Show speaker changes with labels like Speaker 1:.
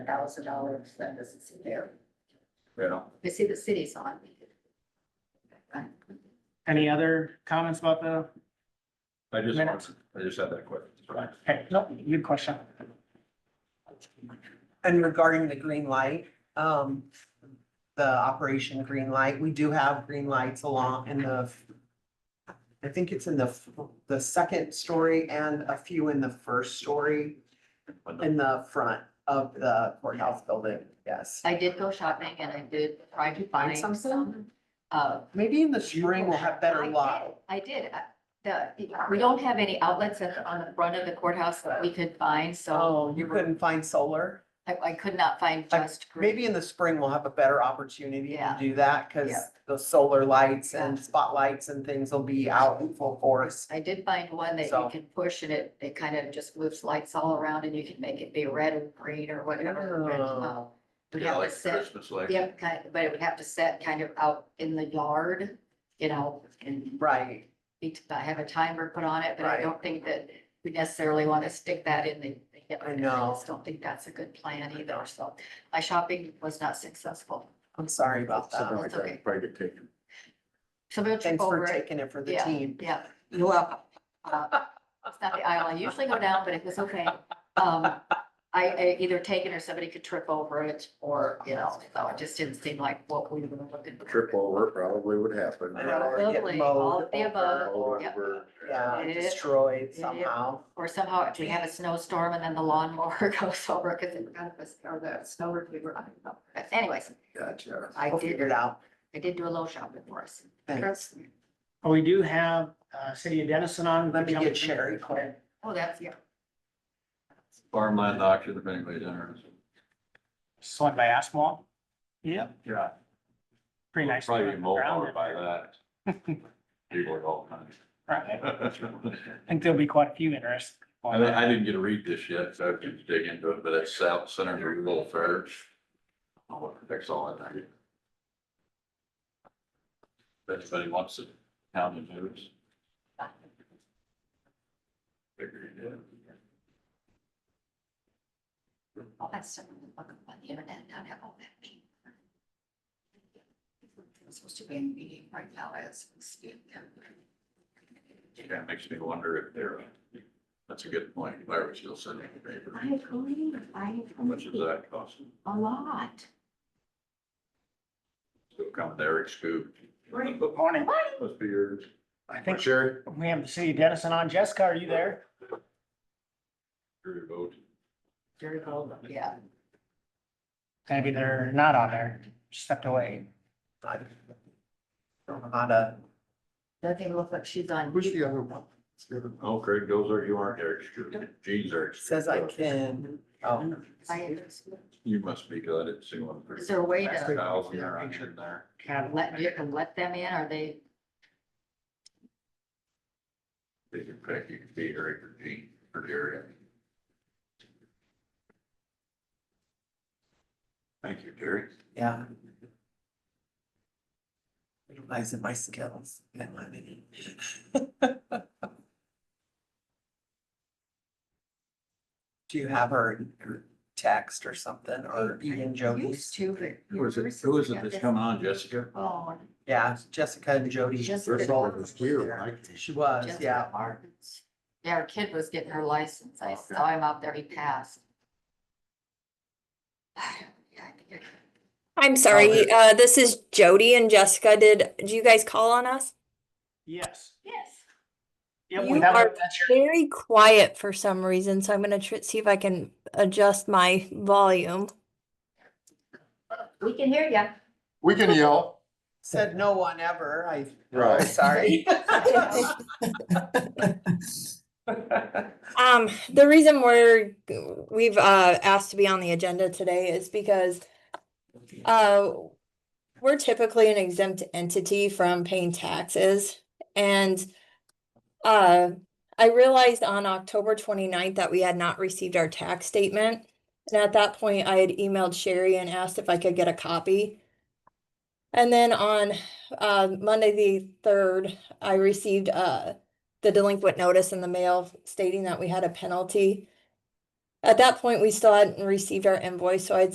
Speaker 1: thousand dollars, that doesn't seem fair.
Speaker 2: Yeah.
Speaker 1: I see the city's on.
Speaker 3: Any other comments about the,
Speaker 2: I just,
Speaker 3: Minutes.
Speaker 2: want- I just had that question.
Speaker 3: okay, nope, good question.
Speaker 4: And regarding the green light, um, the operation green light, we do have green lights along in the. I think it's in the, f- the second story and a few in the first story in the front of the courthouse building, yes.
Speaker 1: I did go shopping and I did try to find
Speaker 4: Find
Speaker 1: some,
Speaker 4: something?
Speaker 1: uh,
Speaker 4: Maybe in the spring we'll have better light.
Speaker 1: I did, uh, the, we don't have any outlets at, the- on the front of the courthouse that we could find, so
Speaker 4: Oh, you couldn't find solar?
Speaker 1: I, I could not find just. green.
Speaker 4: Maybe in the spring we'll have a better opportunity to
Speaker 1: Yeah.
Speaker 4: do that because
Speaker 1: Yeah.
Speaker 4: the solar lights and
Speaker 1: Yeah.
Speaker 4: spotlights and things will be out in full force.
Speaker 1: I did find one that you
Speaker 4: So.
Speaker 1: can push and it, it kind of just moves lights all around and you can make it be red or green or whatever.
Speaker 4: Oh.
Speaker 1: but, uh, Would
Speaker 2: Yeah,
Speaker 1: have
Speaker 2: like
Speaker 1: it set,
Speaker 2: Christmas, like.
Speaker 1: yep, kind, but it would have to set kind of out in the yard, you know, and
Speaker 4: Right,
Speaker 1: be, have a timer put on it, but I
Speaker 4: Right.
Speaker 1: don't think that we necessarily want to stick that in the. the-
Speaker 4: I know.
Speaker 1: just don't think that's a good plan either, so my shopping was not successful.
Speaker 4: I'm sorry about
Speaker 2: Something
Speaker 4: that.
Speaker 2: like
Speaker 1: okay.
Speaker 2: that, probably get taken.
Speaker 1: So we'll check
Speaker 4: Thanks for
Speaker 1: over it.
Speaker 4: taking it for the team.
Speaker 1: Oh, Yeah, you're welcome. Uh, It's not the aisle I usually go down, but it was okay. Um, I, I either taken or somebody could trip over it or, you know, so it just didn't seem like what we were looking for.
Speaker 2: Trip over probably would happen.
Speaker 4: I know, or get
Speaker 1: Probably,
Speaker 4: mowed
Speaker 1: all of the
Speaker 4: over,
Speaker 1: above,
Speaker 2: Roll
Speaker 1: yep.
Speaker 2: over.
Speaker 4: Yeah,
Speaker 1: It-
Speaker 4: destroyed
Speaker 1: it-
Speaker 4: somehow.
Speaker 1: Or somehow if we have a snowstorm and then the lawnmower goes over because it kind of was, or the snow retriever, I don't know. But Anyways,
Speaker 2: Gotcha.
Speaker 1: I
Speaker 4: We'll figure it
Speaker 1: did,
Speaker 4: out.
Speaker 1: I did do a little shopping for us.
Speaker 4: Thanks.
Speaker 3: Well, We do have, uh, City of Dennison on.
Speaker 4: Let me get Sherry quick.
Speaker 1: Oh, that's, yeah.
Speaker 2: Farmland auction, if anybody's interested.
Speaker 3: Just went by Asmal. Yep,
Speaker 2: Yeah.
Speaker 3: pretty nice.
Speaker 2: Probably be
Speaker 3: ground
Speaker 2: mowed by
Speaker 3: in there.
Speaker 2: that. People are all kinds.
Speaker 3: Right. I think there'll be quite a few interested.
Speaker 2: I didn't, I didn't get to read this yet, so I can dig into it, but it's South Senator Little Fair. I'll fix all that. If anybody wants to town the news. Figure it out.
Speaker 1: All that stuff we look up on the internet, not have all that. I'm supposed to be in a meeting right now as. we speak.
Speaker 2: Yeah, it makes me wonder if they're, that's a good point, why would you send it to paper?
Speaker 1: I agree, I
Speaker 2: How much does
Speaker 1: agree,
Speaker 2: that cost?
Speaker 1: a lot.
Speaker 2: Still coming to Eric Scoop.
Speaker 1: Right.
Speaker 3: Good morning.
Speaker 2: Must be yours.
Speaker 3: I think
Speaker 2: Sherry.
Speaker 3: we have the City of Dennison on. Jessica, are you there?
Speaker 2: Your vote.
Speaker 1: Very cold, yeah.
Speaker 3: Maybe they're not on there, stepped away.
Speaker 4: I Don't know how to,
Speaker 1: Doesn't look like she's on.
Speaker 2: the other one? Oh, Craig Dozer, you aren't Eric Scoop. Gene's Eric. Scoop.
Speaker 4: says I can, oh,
Speaker 1: I-
Speaker 2: You must be good at seeing one.
Speaker 1: Is there a way
Speaker 2: Last
Speaker 1: to
Speaker 2: thousand or a hundred there.
Speaker 3: Kind
Speaker 1: let, you can let them in, are they,
Speaker 2: They can pick, you can be Eric or Gene or Jerry. Thank you, Jerry.
Speaker 4: yeah. Utilizing my skills and my mini. Do you have her her text or something or even Jody's?
Speaker 1: used to, but.
Speaker 2: Who is it, who is it that's coming on, Jessica?
Speaker 1: Oh,
Speaker 4: Yeah, Jessica and Jody.
Speaker 1: just.
Speaker 4: She was,
Speaker 1: Just
Speaker 4: yeah.
Speaker 1: apartments. Yeah, our kid was getting her license. I saw him out there. He passed.
Speaker 5: I'm sorry. Uh, this is Jody and Jessica. Did, do you guys call on us?
Speaker 3: Yes.
Speaker 1: Yes.
Speaker 3: Yep,
Speaker 5: You
Speaker 3: we have,
Speaker 5: are-
Speaker 3: that's your-
Speaker 5: Very quiet for some reason, so I'm gonna tr see if I can adjust my volume.
Speaker 1: We can hear you.
Speaker 6: We can yell,
Speaker 4: Said no one ever, I, oh,
Speaker 6: right?
Speaker 4: sorry.
Speaker 5: Um, the reason we're, we've, uh, asked to be on the agenda today is because, uh, we're typically an exempt entity from paying taxes and, uh, I realized on October 29th that we had not received our tax statement. And at that point, I had emailed Sherry and asked if I could get a copy. And then on, uh, Monday, the third, I received, uh, the delinquent notice in the mail stating that we had a penalty. At that point, we still hadn't received our invoice, so I'd